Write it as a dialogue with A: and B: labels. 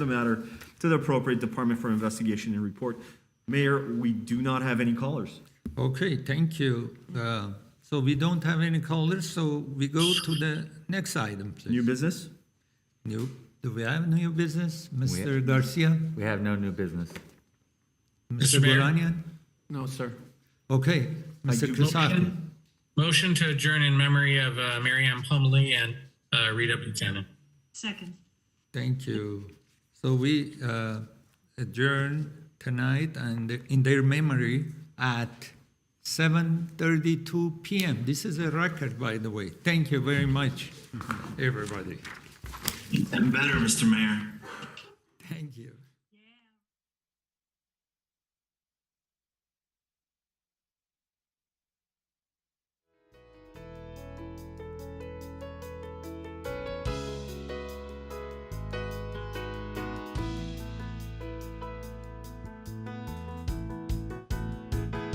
A: the matter to the appropriate department for investigation and report. Mayor, we do not have any callers.
B: Okay, thank you. Uh, So we don't have any callers, so we go to the next item,
A: New
B: please.
A: business?
B: New, do we have new business? Mr. Garcia?
C: We have no new business.
B: Mr.
D: Mayor.
B: Bolanian?
E: No, sir.
B: Okay, Mr.
A: do-
B: Crisaki?
D: Motion to adjourn in memory of uh, Mary Ann Plumley and uh, Rita Buchanan.
F: Second.
B: Thank you. So we uh, adjourn tonight and in their memory at 7:32 PM. This is a record, by the way. Thank you very much, everybody.
G: And better, Mr. Mayor.